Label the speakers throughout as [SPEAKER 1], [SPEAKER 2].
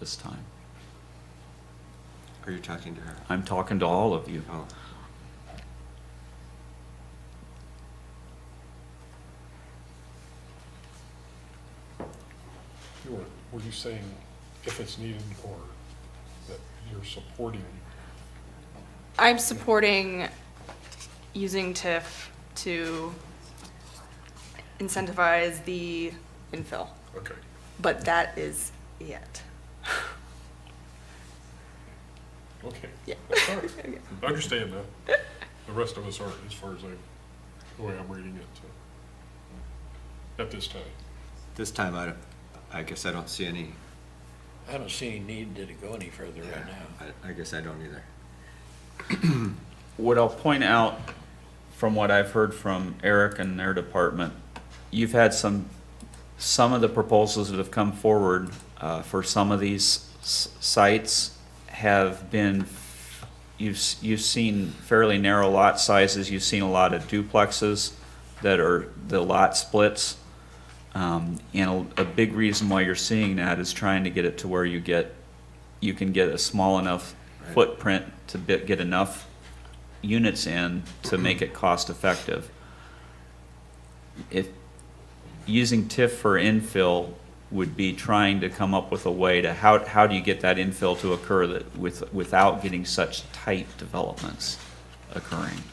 [SPEAKER 1] this time.
[SPEAKER 2] Are you talking to her?
[SPEAKER 1] I'm talking to all of you.
[SPEAKER 2] Oh,
[SPEAKER 3] You were, were you saying if it's needed or that you're supporting?
[SPEAKER 4] I'm supporting using TIF to incentivize the infill,
[SPEAKER 3] Okay.
[SPEAKER 4] but that is it.
[SPEAKER 3] Okay.
[SPEAKER 4] Yeah.
[SPEAKER 3] That's all right. I understand that. The rest of us aren't, as far as I, the way I'm reading it, so, at this time.
[SPEAKER 2] This time, I, don't- I guess I don't see any,
[SPEAKER 5] I don't see any need to go any further right
[SPEAKER 2] yeah,
[SPEAKER 5] now.
[SPEAKER 2] I, I guess I don't either.
[SPEAKER 1] What I'll point out from what I've heard from Eric and their department, you've had some, some of the proposals that have come forward uh, for some of these s- sites have been, you've, s- you've seen fairly narrow lot sizes, you've seen a lot of duplexes that are the lot splits. Um, And a a big reason why you're seeing that is trying to get it to where you get, you can get a small enough
[SPEAKER 2] Right.
[SPEAKER 1] footprint to bit- get enough units in to make it cost effective. If, using TIF for infill would be trying to come up with a way to, how, how do you get that infill to occur that, with, without getting such tight developments occurring?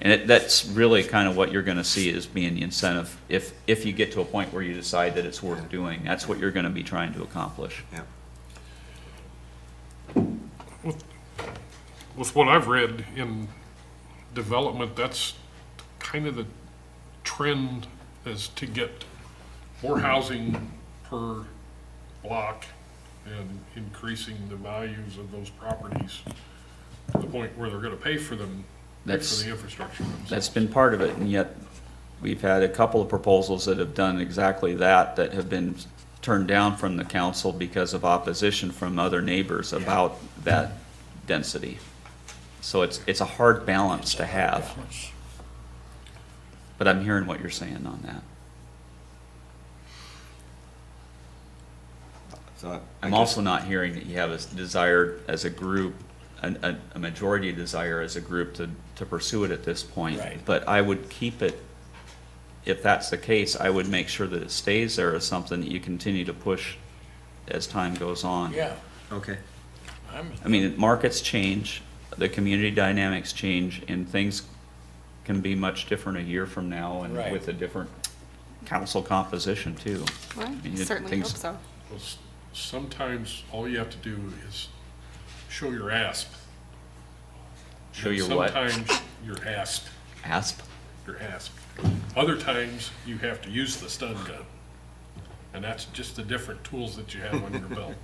[SPEAKER 1] And it, that's really kind of what you're gonna see is being the incentive, if, if you get to a point where you decide that it's worth doing, that's what you're gonna be trying to accomplish.
[SPEAKER 2] Yeah,
[SPEAKER 3] With what I've read in development, that's kind of the trend is to get more housing per block and increasing the values of those properties to the point where they're gonna pay for them, pay for
[SPEAKER 1] That's-
[SPEAKER 3] the infrastructure.
[SPEAKER 1] That's been part of it, and yet we've had a couple of proposals that have done exactly that, that have been turned down from the council because of opposition from other neighbors about that density. So it's, it's a hard balance to have,
[SPEAKER 5] Balance.
[SPEAKER 1] but I'm hearing what you're saying on that.
[SPEAKER 2] so. I- I
[SPEAKER 1] I'm
[SPEAKER 2] guess-
[SPEAKER 1] also not hearing that you have a s- desire as a group, an- a, a majority desire as a group to, to pursue it at this point.
[SPEAKER 5] Right.
[SPEAKER 1] But I would keep it, if that's the case, I would make sure that it stays there as something that you continue to push as time goes on.
[SPEAKER 5] Yeah,
[SPEAKER 2] Okay,
[SPEAKER 5] I'm,
[SPEAKER 1] I mean, markets change, the community dynamics change, and things can be much different a year from now and
[SPEAKER 5] Right.
[SPEAKER 1] with a different council composition too.
[SPEAKER 4] Well,
[SPEAKER 1] I mean,
[SPEAKER 4] I
[SPEAKER 1] it-
[SPEAKER 4] certainly hope
[SPEAKER 1] things-
[SPEAKER 4] so.
[SPEAKER 3] Well, s- Sometimes all you have to do is show your asp.
[SPEAKER 1] Show your what?
[SPEAKER 3] Sometimes your asp.
[SPEAKER 1] Asp?
[SPEAKER 3] your ask. Other times, you have to use the stun gun. And that's just the different tools that you have on your belt,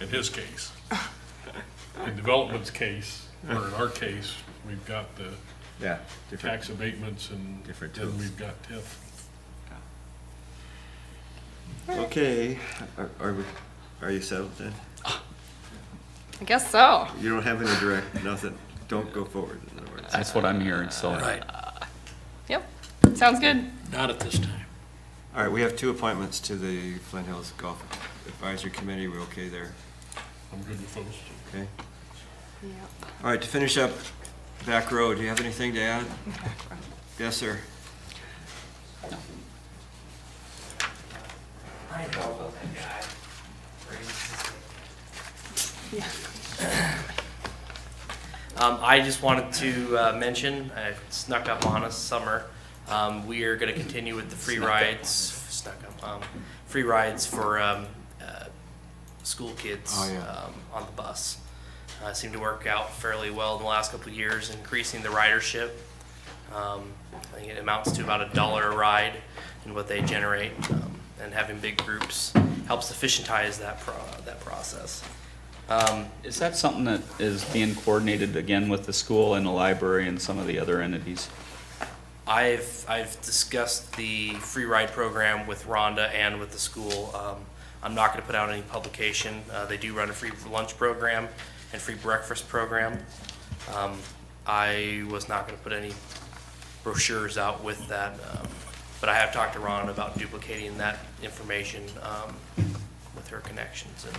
[SPEAKER 3] in his case. In development's case, or in our case, we've got the
[SPEAKER 2] yeah, different,
[SPEAKER 3] tax abatements and
[SPEAKER 2] Different
[SPEAKER 3] then
[SPEAKER 2] tools.
[SPEAKER 3] we've got TIF.
[SPEAKER 2] okay, are, are we, are you settled then?
[SPEAKER 4] I guess so.
[SPEAKER 2] You don't have any direct, nothing, don't go forward, in other words.
[SPEAKER 1] That's what I'm hearing, so.
[SPEAKER 5] right,
[SPEAKER 4] Yep, sounds good.
[SPEAKER 5] not at this time.
[SPEAKER 2] All right, we have two appointments to the Flint Hills Golf Advisory Committee, we're okay there,
[SPEAKER 3] I'm good with those.
[SPEAKER 2] okay?
[SPEAKER 4] Yep.
[SPEAKER 2] All right, to finish up, back row, do you have anything to add? Yes, sir.
[SPEAKER 6] Um, I just wanted to uh, mention, I snuck up on us summer. Um, we are going to continue with the free rides, snuck up, um, free rides for um, uh, school kids
[SPEAKER 2] Oh, yeah.
[SPEAKER 6] um, on the bus. Uh, seemed to work out fairly well in the last couple of years, increasing the ridership. Um, I think it amounts to about a dollar a ride in what they generate, um, and having big groups helps efficientize that pro- that process. Um,
[SPEAKER 1] Is that something that is being coordinated again with the school and the library and some of the other entities?
[SPEAKER 6] I've I've discussed the free ride program with Rhonda and with the school. Um, I'm not going to put out any publication. Uh, they do run a free lunch program and free breakfast program. Um, I was not going to put any brochures out with that, um, but I have talked to Rhonda about duplicating that information um, with her connections and